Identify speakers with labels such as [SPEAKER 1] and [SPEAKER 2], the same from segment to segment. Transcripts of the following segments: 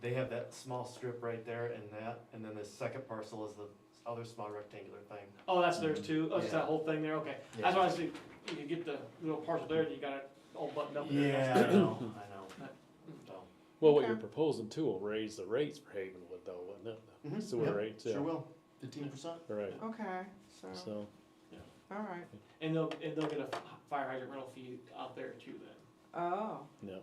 [SPEAKER 1] they have that small strip right there and that, and then the second parcel is the other small rectangular thing.
[SPEAKER 2] Oh, that's theirs too, oh, it's
[SPEAKER 1] Mm-hmm. Yeah.
[SPEAKER 2] that whole thing there, okay. That's why I said, you could get the little parcel there, and you got it all buttoned up there.
[SPEAKER 1] Yeah, I know, I know. So,
[SPEAKER 3] Well, what
[SPEAKER 4] Okay.
[SPEAKER 3] you're proposing too will raise the rates for Havenwood though, wouldn't it? The
[SPEAKER 1] Mhm,
[SPEAKER 3] Sewer
[SPEAKER 1] yep,
[SPEAKER 3] rates,
[SPEAKER 1] Sure
[SPEAKER 3] yeah,
[SPEAKER 1] will, fifteen percent.
[SPEAKER 3] right,
[SPEAKER 4] Okay, so,
[SPEAKER 3] so,
[SPEAKER 4] all right.
[SPEAKER 2] And they'll, and they'll get a fire hydrant rental fee out there too then.
[SPEAKER 4] Oh,
[SPEAKER 3] yeah.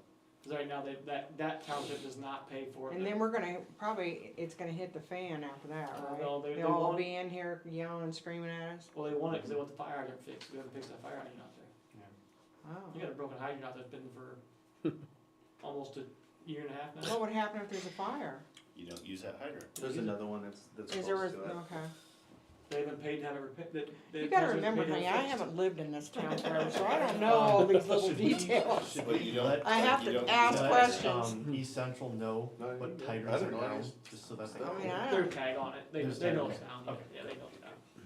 [SPEAKER 2] Cause right now, they, that, that township does not pay for it.
[SPEAKER 4] and then we're gonna, probably, it's gonna hit the fan after that,
[SPEAKER 2] Uh,
[SPEAKER 4] right?
[SPEAKER 2] no, they- they
[SPEAKER 4] They'll all
[SPEAKER 2] want-
[SPEAKER 4] be in here yelling and screaming at us?
[SPEAKER 2] Well, they want it, cause they want the fire hydrant fixed, we haven't fixed that fire hydrant out there.
[SPEAKER 4] Oh.
[SPEAKER 2] You got a broken hydrant out there, it's been for almost a year and a half now.
[SPEAKER 4] What would happen if there's a fire?
[SPEAKER 5] You don't use that hydrant.
[SPEAKER 6] There's another one that's, that's
[SPEAKER 4] Is there,
[SPEAKER 6] close
[SPEAKER 4] was-
[SPEAKER 6] to it.
[SPEAKER 4] okay.
[SPEAKER 2] They haven't paid to have it repaired, that.
[SPEAKER 4] You
[SPEAKER 2] that-
[SPEAKER 4] gotta
[SPEAKER 2] they've
[SPEAKER 4] remember,
[SPEAKER 2] paid to
[SPEAKER 4] honey,
[SPEAKER 2] have
[SPEAKER 4] I
[SPEAKER 2] it fixed.
[SPEAKER 4] haven't lived in this town forever, so I don't know all these little details.
[SPEAKER 5] But you don't.
[SPEAKER 4] I have
[SPEAKER 5] you
[SPEAKER 4] to
[SPEAKER 5] don't-
[SPEAKER 4] ask
[SPEAKER 5] you don't-
[SPEAKER 4] questions.
[SPEAKER 1] Um, East Central know
[SPEAKER 6] No,
[SPEAKER 1] what
[SPEAKER 6] you-
[SPEAKER 1] hydrants
[SPEAKER 6] I
[SPEAKER 1] are
[SPEAKER 6] don't know. Oh,
[SPEAKER 1] now, just so that they.
[SPEAKER 4] I mean,
[SPEAKER 1] know.
[SPEAKER 4] I
[SPEAKER 2] Their
[SPEAKER 4] don't,
[SPEAKER 2] tag on it, they,
[SPEAKER 1] There's
[SPEAKER 2] they
[SPEAKER 1] tag,
[SPEAKER 2] know
[SPEAKER 1] okay.
[SPEAKER 2] it's down, yeah,
[SPEAKER 1] Okay.
[SPEAKER 2] yeah, they know it's down.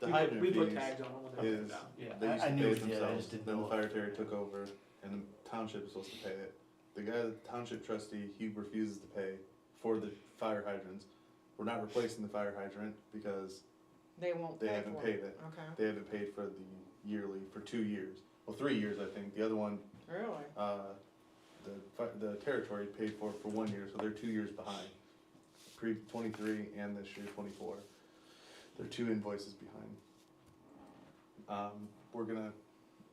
[SPEAKER 6] The
[SPEAKER 2] We put-
[SPEAKER 6] hydrant
[SPEAKER 2] We put
[SPEAKER 6] fees
[SPEAKER 2] tags on them when they put it
[SPEAKER 6] is-
[SPEAKER 2] down, yeah.
[SPEAKER 6] They
[SPEAKER 1] I-
[SPEAKER 6] used
[SPEAKER 1] I
[SPEAKER 6] to
[SPEAKER 1] knew
[SPEAKER 6] pay
[SPEAKER 1] it
[SPEAKER 6] it
[SPEAKER 1] was- yeah, I
[SPEAKER 6] themselves,
[SPEAKER 1] just didn't
[SPEAKER 6] then
[SPEAKER 1] know
[SPEAKER 6] the
[SPEAKER 1] if-
[SPEAKER 6] fire terror took over, and the township was supposed to pay it. The guy, the township trustee, he refuses to pay for the fire hydrants. We're not replacing the fire hydrant because
[SPEAKER 4] they won't
[SPEAKER 6] they
[SPEAKER 4] pay
[SPEAKER 6] haven't
[SPEAKER 4] for it.
[SPEAKER 6] paid it.
[SPEAKER 4] Okay,
[SPEAKER 6] They haven't paid for the yearly, for two years, well, three years, I think. The other one,
[SPEAKER 4] really?
[SPEAKER 6] uh, the, fi- the territory paid for it for one year, so they're two years behind. Pre twenty-three and this year twenty-four. They're two invoices behind. Um, we're gonna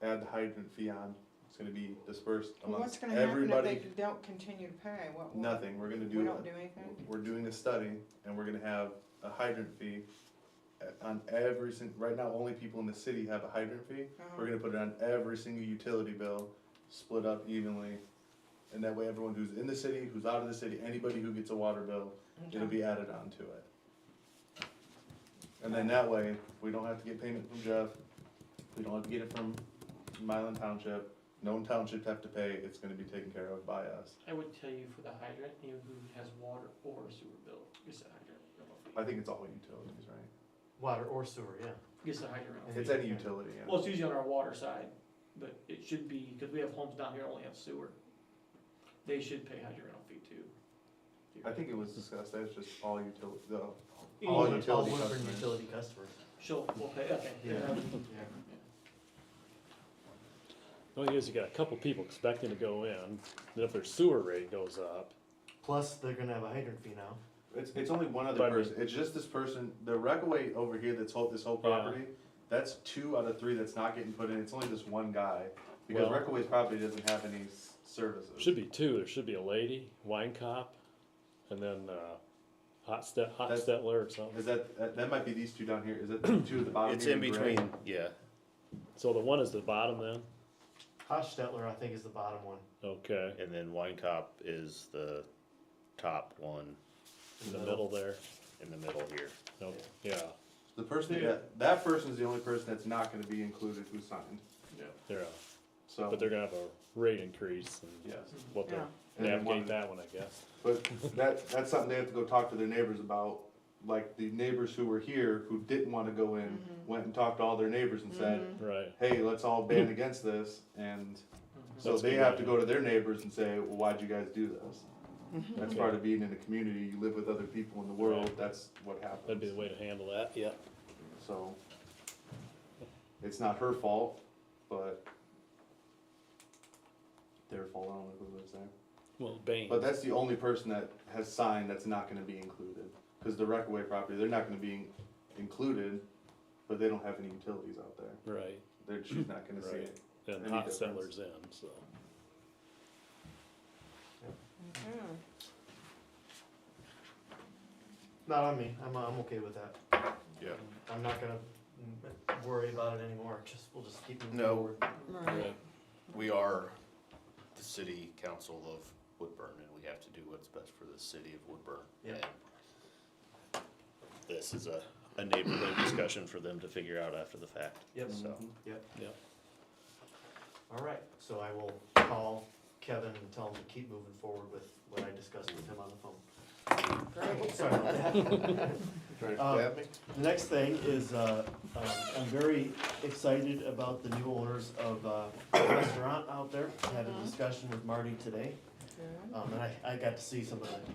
[SPEAKER 6] add the hydrant fee on, it's gonna be dispersed
[SPEAKER 4] Well, What's
[SPEAKER 6] amongst
[SPEAKER 4] gonna happen if they
[SPEAKER 6] everybody.
[SPEAKER 4] don't continue to pay? What? will-
[SPEAKER 6] Nothing, we're gonna do.
[SPEAKER 4] We don't
[SPEAKER 6] a-
[SPEAKER 4] do anything?
[SPEAKER 6] We're doing a study and we're gonna have a hydrant fee at- on every sin, right now, only people in the city have a hydrant fee. We're
[SPEAKER 4] Uh-huh.
[SPEAKER 6] gonna put it on every single utility bill, split up evenly. And that way everyone who's in the city, who's out of the city, anybody who gets a water bill,
[SPEAKER 4] Uh-huh.
[SPEAKER 6] it'll be added on to it. And then that way, we don't have to get payment from Jeff, we don't have to get it from Mylan Township. No township have to pay, it's gonna be taken care of by us.
[SPEAKER 2] I would tell you for the hydrant, anyone who has water or sewer bill gets a hydrant rental
[SPEAKER 6] I
[SPEAKER 2] fee.
[SPEAKER 6] think it's all utilities, right?
[SPEAKER 1] Water or sewer, yeah.
[SPEAKER 2] Gets a hydrant rental. fee.
[SPEAKER 6] It's any utility,
[SPEAKER 2] Well,
[SPEAKER 6] yeah.
[SPEAKER 2] it's usually on our water side, but it should be, because we have homes down here that only have sewer. They should pay hydrant rental fee too.
[SPEAKER 6] I think it was discussed, that's just all utility, the,
[SPEAKER 2] All
[SPEAKER 1] All
[SPEAKER 6] utility
[SPEAKER 1] Woodburn
[SPEAKER 6] customers.
[SPEAKER 1] utility customers.
[SPEAKER 2] She'll, we'll pay, okay.
[SPEAKER 1] Yeah.
[SPEAKER 3] The Only Oh, is you got a couple people expecting to go in, then if their sewer rate goes up,
[SPEAKER 1] Plus, they're gonna have a hydrant fee now.
[SPEAKER 6] It's, it's only one other
[SPEAKER 3] But I mean-
[SPEAKER 6] person. It's just this person. The Rockaway over here that's whole, this whole
[SPEAKER 3] Yeah.
[SPEAKER 6] property. That's two out of three that's not getting put in. It's only this one guy because
[SPEAKER 3] Well-
[SPEAKER 6] Rockaway's property doesn't have any s- services.
[SPEAKER 3] should be two, there should be a lady, wine cop, and then, uh, hot step, hot
[SPEAKER 6] That's-
[SPEAKER 3] stetler or something.
[SPEAKER 6] Is that, that that might be these two down here? Is that the two at the bottom?
[SPEAKER 5] It's
[SPEAKER 6] here
[SPEAKER 5] in
[SPEAKER 6] gray?
[SPEAKER 5] between, yeah.
[SPEAKER 3] So the one is the bottom then,
[SPEAKER 1] Hostetler, I think, is the bottom one.
[SPEAKER 3] okay,
[SPEAKER 5] And then Wine Cop is the top one
[SPEAKER 3] in the middle there,
[SPEAKER 5] in the middle here.
[SPEAKER 3] no, yeah,
[SPEAKER 6] The person
[SPEAKER 2] Yeah.
[SPEAKER 6] that that person is the only person that's not going to be included who signed.
[SPEAKER 2] Yeah.
[SPEAKER 3] they're, uh,
[SPEAKER 6] So
[SPEAKER 3] but they're gonna have a rate increase and
[SPEAKER 6] yes,
[SPEAKER 3] we'll have to
[SPEAKER 4] Yeah.
[SPEAKER 6] And then one-
[SPEAKER 3] navigate that one, I guess.
[SPEAKER 6] but that that's something they have to go talk to their neighbors about. Like the neighbors who were here who didn't want to go in went and talked to all their neighbors and said,
[SPEAKER 3] Right,
[SPEAKER 6] hey, let's all band against this. And so
[SPEAKER 3] That's
[SPEAKER 6] they
[SPEAKER 3] good
[SPEAKER 6] have to
[SPEAKER 3] idea.
[SPEAKER 6] go to their neighbors and say, well, why'd you guys do this? That's
[SPEAKER 3] Okay.
[SPEAKER 6] part of being in a community. You live with other people in the world. That's what
[SPEAKER 3] that'd be the
[SPEAKER 6] happens.
[SPEAKER 3] way to handle that, yeah.
[SPEAKER 6] So it's not her fault, but their fault. I don't know who lives there.
[SPEAKER 3] Well, Bain.
[SPEAKER 6] But that's the only person that has signed that's not going to be included. Because the Rockaway property, they're not going to be in- included, but they don't have any utilities out there.
[SPEAKER 3] right,
[SPEAKER 6] They're, she's not going to see
[SPEAKER 3] right,
[SPEAKER 6] it.
[SPEAKER 3] and
[SPEAKER 6] Any
[SPEAKER 3] hot
[SPEAKER 6] difference?
[SPEAKER 3] settlers in, so.
[SPEAKER 4] Okay.
[SPEAKER 1] Not on me. I'm, I'm okay with that.
[SPEAKER 5] Yeah.
[SPEAKER 1] I'm not gonna mm, worry about it anymore. Just, we'll just keep moving
[SPEAKER 5] No.
[SPEAKER 1] forward.
[SPEAKER 4] Right.
[SPEAKER 5] We are the city council of Woodburn and we have to do what's best for the city of Woodburn.
[SPEAKER 1] Yeah.
[SPEAKER 5] And This is a, a neighborhood discussion for them to figure out after the fact.
[SPEAKER 1] Yep.
[SPEAKER 5] So,
[SPEAKER 1] Yep.
[SPEAKER 3] Yep.
[SPEAKER 1] All right. So I will call Kevin and tell him to keep moving forward with what I discussed with him on the phone. Sorry about that.
[SPEAKER 6] Trying
[SPEAKER 1] Um,
[SPEAKER 6] stab me?
[SPEAKER 1] The next thing is, uh, um, I'm very excited about the new owners of uh, a restaurant out there. I Had a discussion with Marty today,
[SPEAKER 4] Good.
[SPEAKER 1] um, and I, I got to see some of the